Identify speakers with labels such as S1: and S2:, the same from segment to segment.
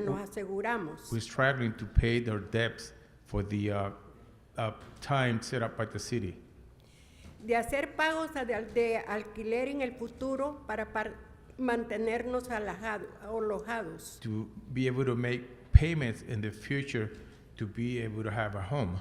S1: nos aseguramos
S2: who is struggling to pay their debts for the uh, uh, time set up by the city.
S1: de hacer pagos a- de, al- de alquiler en el futuro para par- mantenernos alajado- alojados,
S2: to be able to make payments in the future to be able to have a home.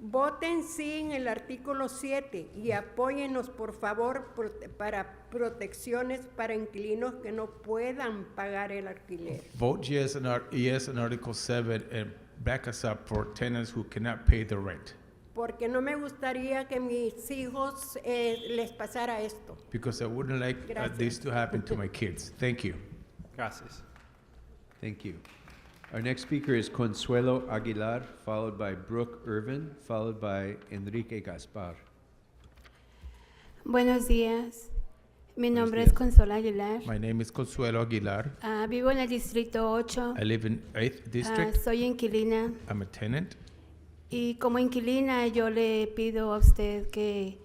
S1: Voten sí en el artículo 7 y apóyennos por favor prote- para protecciones para inquilinos que no puedan pagar el alquiler.
S2: Vote yes on, Art- yes on Article 7 and back us up for tenants who cannot pay the rent.
S1: Porque no me gustaría que mis hijos eh, les pasara esto.
S2: Because I wouldn't like uh, this to happen to my kids. Thank you.
S3: Gracias.
S4: Thank you. Our next speaker is Consuelo Aguilar, followed by Brooke Irvin, followed by Enrique Gaspar.
S5: Buenos días. Mi
S4: Buenos
S5: nombre
S4: días.
S5: es Consola Aguilar.
S2: My name is Consuelo Aguilar.
S5: Ah, vivo en el distrito 8.
S2: I live in 8th
S5: Ah,
S2: District.
S5: soy inquilina
S2: I'm a tenant.
S5: y como inquilina yo le pido a usted que,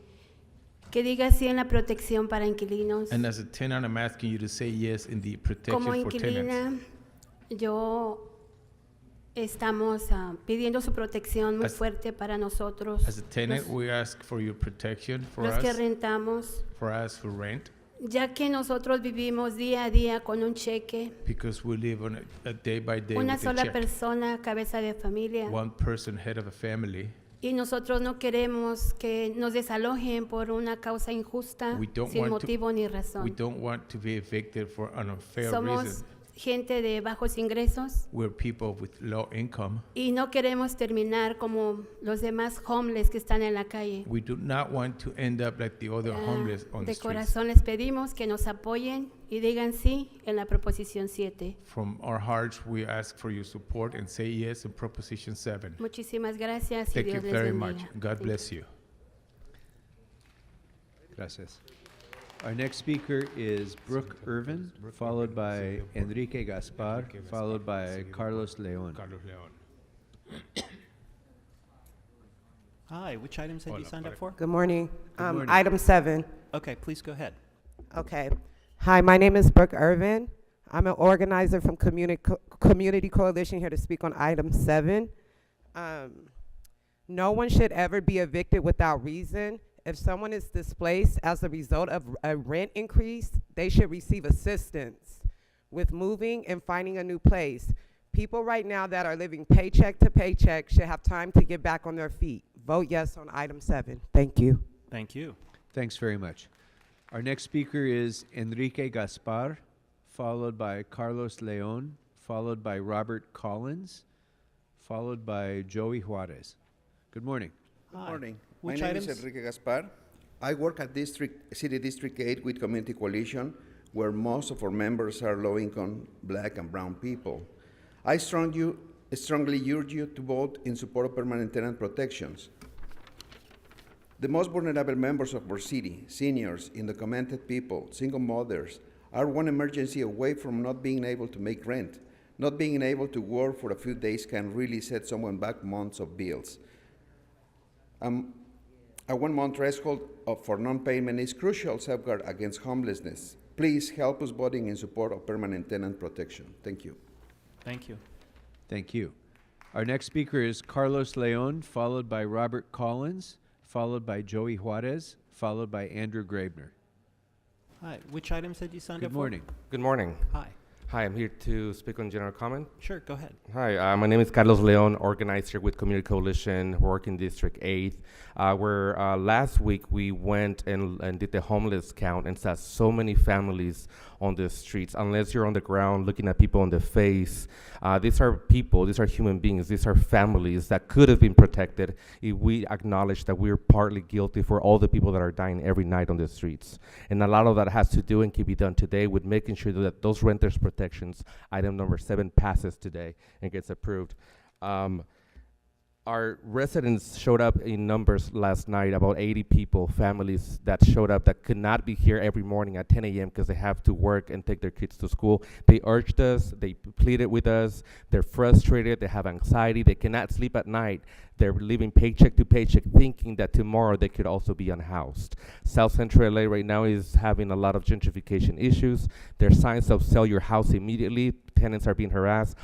S5: que diga sí en la protección para inquilinos.
S2: And as a tenant, I'm asking you to say yes in the
S5: Como
S2: protection for tenants.
S5: inquilina yo estamos ah, pidiendo su protección muy
S2: As-
S5: fuerte para nosotros,
S2: As a tenant,
S5: los-
S2: we ask for your protection for
S5: los que
S2: us,
S5: rentamos,
S2: for us who rent,
S5: ya que nosotros vivimos día a día con un cheque,
S2: because we live on a, a day by day
S5: una
S2: with a
S5: sola
S2: check.
S5: persona, cabeza de familia.
S2: one person head of a family.
S5: Y nosotros no queremos que nos desalojen por una causa injusta,
S2: We don't
S5: sin
S2: want to-
S5: motivo ni
S2: We
S5: razón.
S2: don't want to be evicted for an unfair
S5: Somos
S2: reason.
S5: gente de bajos ingresos
S2: We're people with low income.
S5: y no queremos terminar como los demás homeless que están en la calle.
S2: We do not want to end up like the other
S5: Ah,
S2: homeless on the
S5: de
S2: streets.
S5: corazón les pedimos que nos apoyen y digan sí en la proposición 7.
S2: From our hearts, we ask for your support and say yes in Proposition 7.
S5: Muchísimas gracias y
S2: Thank you
S5: Dios les
S2: very much.
S5: bendiga.
S2: God
S5: Thank you.
S2: bless you.
S4: Gracias. Our next speaker is Brooke Irvin, followed by Enrique Gaspar, followed by Carlos Leon.
S2: Carlos Leon.
S3: Hi, which items had you
S2: Hola,
S3: signed up
S2: Marek.
S3: for?
S6: Good morning. Um,
S4: morning.
S6: Item seven.
S3: Okay, please go ahead.
S6: Okay. Hi, my name is Brooke Irvin. I'm an organizer from Communi- Co- Community Coalition here to speak on item seven. Um, No one should ever be evicted without reason. If someone is displaced as a result of a rent increase, they should receive assistance with moving and finding a new place. People right now that are living paycheck to paycheck should have time to get back on their feet. Vote yes on item seven. Thank you.
S3: Thank you.
S4: Thanks very much. Our next speaker is Enrique Gaspar, followed by Carlos Leon, followed by Robert Collins, followed by Joey Juarez. Good morning.
S7: Good
S3: Hi.
S7: morning.
S3: Which
S7: My name
S3: items?
S7: is Enrique Gaspar. I work at District City District 8 with Community Coalition, where most of our members are low-income Black and Brown people. I strong you, strongly urge you to vote in support of permanent tenant protections. The most vulnerable members of our city, seniors, undocumented people, single mothers, are one emergency away from not being able to make rent. Not being able to work for a few days can really set someone back months of bills. Um, a one month threshold of, for non payment is crucial safeguard against homelessness. Please help us voting in support of permanent tenant protection. Thank you.
S3: Thank you.
S4: Thank you. Our next speaker is Carlos Leon, followed by Robert Collins, followed by Joey Juarez, followed by Andrew Grabner.
S3: Hi, which items had you signed up
S4: Good
S3: for?
S4: morning.
S8: Good morning.
S3: Hi.
S8: Hi, I'm here to speak on general comment.
S3: Sure, go ahead.
S8: Hi, uh, my name is Carlos Leon, organizer with Community Coalition, work in District 8. Uh, where uh, last week we went and, and did the homeless count and saw so many families on the streets. Unless you're on the ground looking at people on the face, uh, these are people, these are human beings, these are families that could have been protected if we acknowledge that we're partly guilty for all the people that are dying every night on the streets. And a lot of that has to do and can be done today with making sure that those renters' protections, item number seven, passes today and gets approved. Um, Our residents showed up in numbers last night, about 80 people, families that showed up that could not be here every morning at 10 a.m. because they have to work and take their kids to school. They urged us, they pleaded with us, they're frustrated, they have anxiety, they cannot sleep at night. They're living paycheck to paycheck thinking that tomorrow they could also be unhoused. South Central LA right now is having a lot of gentrification issues. There are signs of sell your house immediately, tenants are being harassed.